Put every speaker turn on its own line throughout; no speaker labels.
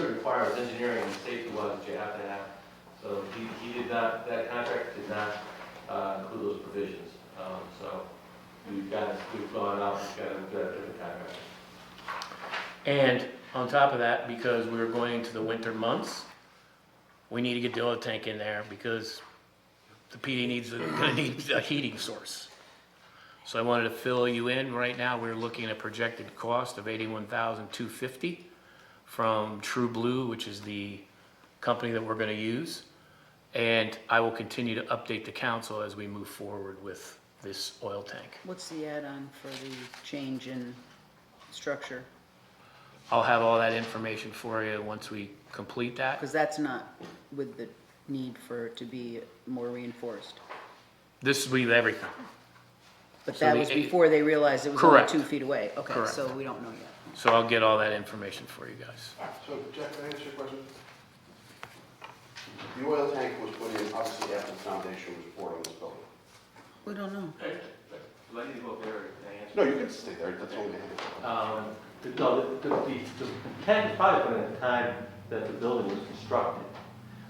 requires engineering and safety wise that you have to have. So he, he did not, that contract did not uh, include those provisions. Um, So we've got, we've gone out, we've got a we've got a different contract.
And on top of that, because we were going into the winter months, we need to get the oil tank in there because the PD needs, gonna need a heating source. So I wanted to fill you in. Right now, we're looking at a projected cost of eighty-one thousand two fifty from True Blue, which is the company that we're gonna use. And I will continue to update the council as we move forward with this oil tank.
What's the add-on for the change in structure?
I'll have all that information for you once we complete that.
Because that's not with the need for it to be more reinforced.
This will be everything.
But
So
that
the
was
eight-
before they realized it was only
Correct.
two feet away. Okay,
Correct.
so we don't know yet.
So I'll get all that information for you guys.
So Jack, can I answer your question? The oil tank was put in obviously after the foundation was poured on this building.
We don't know.
Do I need to go up there and answer?
No, you can stay there, that's only.
Um, the- No, the, the, the the tank was probably put in at the time that the building was constructed.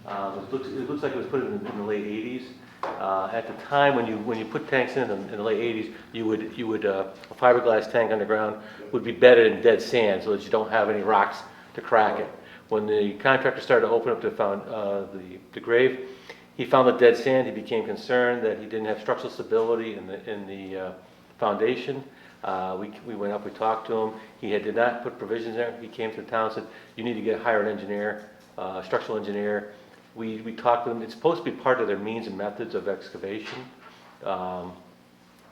Um, It looks, it looks like it was put in in the late eighties. Uh, At the time, when you, when you put tanks in them in the late eighties, you would, you would, uh, a fiberglass tank underground would be bedded in dead sand so that you don't have any rocks to crack it. When the contractor started to open up the found, uh, the, the grave, he found the dead sand, he became concerned that he didn't have structural stability in the, in the uh, foundation. Uh, We, we went up, we talked to him, he had, did not put provisions there, he came to the town, said, you need to get, hire an engineer, uh, structural engineer. We, we talked to them, it's supposed to be part of their means and methods of excavation. Um,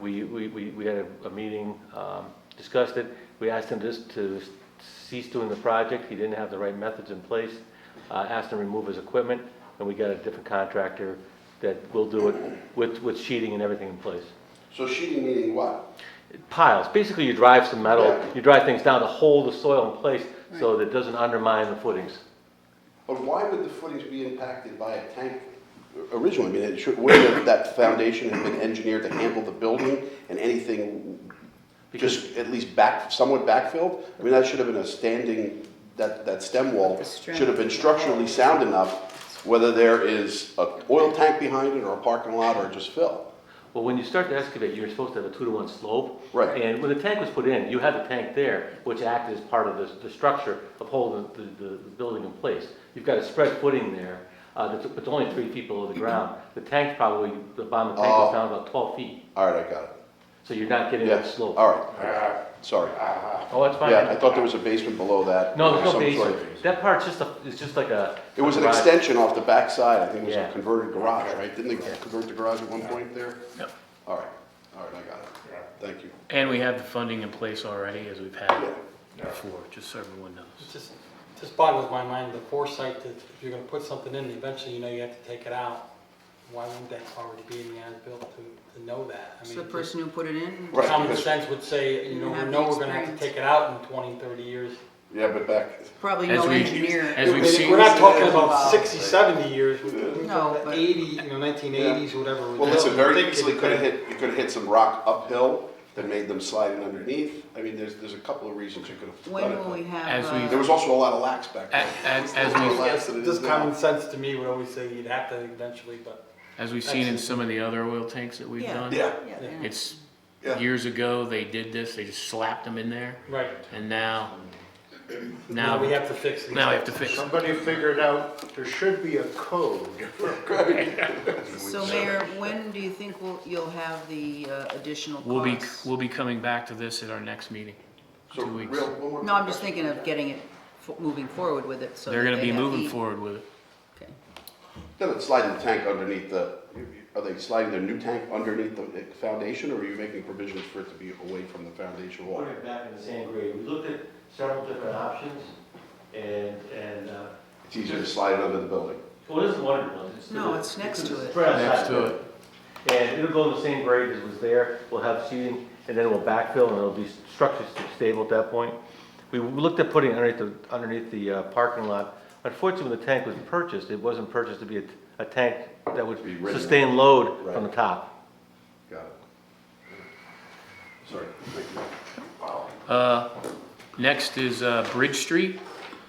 we, we, we we had a, a meeting, um, discussed it, we asked him just to cease doing the project, he didn't have the right methods in place, uh, asked him to remove his equipment, and we got a different contractor that will do it with, with sheeting and everything in place.
So sheeting meaning what?
Piles, basically you drive some metal,
Yeah.
you drive things down to hold the soil in place so that it doesn't undermine the footings.
But why would the footings be impacted by a tank originally? I mean, it should, wouldn't have that foundation have been engineered to handle the building and anything
Because,
just at least back, somewhat backfilled? I mean, that should have been a standing, that, that stem wall
The strength.
should have been structurally sound enough, whether there is a oil tank behind it or a parking lot or just fill.
well, when you start to excavate, you're supposed to have a two to one slope.
Right.
And when the tank was put in, you had the tank there, which acted as part of the, the structure of holding the, the, the building in place. You've got a spread footing there, uh, that's, it's only three feet below the ground. The tank's probably, the bottom of the tank is
Mm-hmm. Oh.
down about twelve feet,
All right, I got it.
so you're not getting that
Yes, all
slope.
right, sorry.
Oh, that's fine.
Yeah, I thought there was a basement below that.
No,
of
there's no
some sort.
basement. That part's just a, it's just like a.
It was an
garage.
extension off the backside, I think it was
Yeah.
a converted garage, right? Didn't they convert the garage at one point there?
Yep.
All right, all right, I got it. Thank you.
And we have the funding in place already, as we've
Yeah.
had before, just so everyone knows.
It just, just boggles my mind, the foresight that if you're gonna put something in, eventually you know you have to take it out. Why wouldn't that already be in the as-built to, to know that? I
So the
mean,
person who put it in?
Right.
common
because-
sense would say,
You
you know,
have
we
the
know we're gonna have to
experience.
take it out in 20, 30 years.
Yeah, but back,
Probably
As
no
we-
engineer.
as we've seen-
We're not talking about
Involved.
60, 70 years, we're
No,
talking
but-
about 80, you know, 1980s, whatever.
well, listen, very easily could have hit, you could have hit some rock uphill that made them slide in underneath. I mean, there's, there's a couple of reasons you could have
When
done
will we
it.
have,
As
uh,
we-
There was also a lot of lax back
A-
then.
As,
There's
as
a lot of
we've,
lax that it is
Just
now.
common sense to me would always say you'd have to eventually, but
as we've seen in some of the other oil tanks that we've
Yeah.
done.
Yeah,
yeah, they are.
It's,
Yeah.
years ago, they did this, they just slapped them in there,
right.
and now,
Now
now,
we have to fix it.
now we have to fix it.
Somebody figured out there should be a code.
So Mayor, when do you think we'll, you'll have the uh, additional
We'll be,
costs?
we'll be coming back to this at our next meeting.
so
Two weeks.
real, one more.
No, I'm just thinking of getting it, fo- moving forward with it, so.
They're
that
gonna
they
be
have
moving
heat.
forward with it.
Okay.
Then it's sliding the tank underneath the, are they sliding their new tank underneath the foundation, or are you making provisions for it to be away from the foundation wall?
Put it back in the same grade. We looked at several different options and, and, uh,
It's easier to slide it under the building.
well, this is one of the ones. It's to
No,
the-
it's next to it.
It's right outside
Next to
the- And it'll go in the same grade as was there. We'll have seating and then we'll backfill and it'll be structurally stable at that point. We looked at putting it underneath the, underneath the uh, parking lot. Unfortunately, when the tank was purchased, it wasn't purchased to be a, a tank that would
Be rigid.
sustain load
Right.
from the top.
Got it. Sorry. thank you.
Uh, next is, uh, Bridge Street.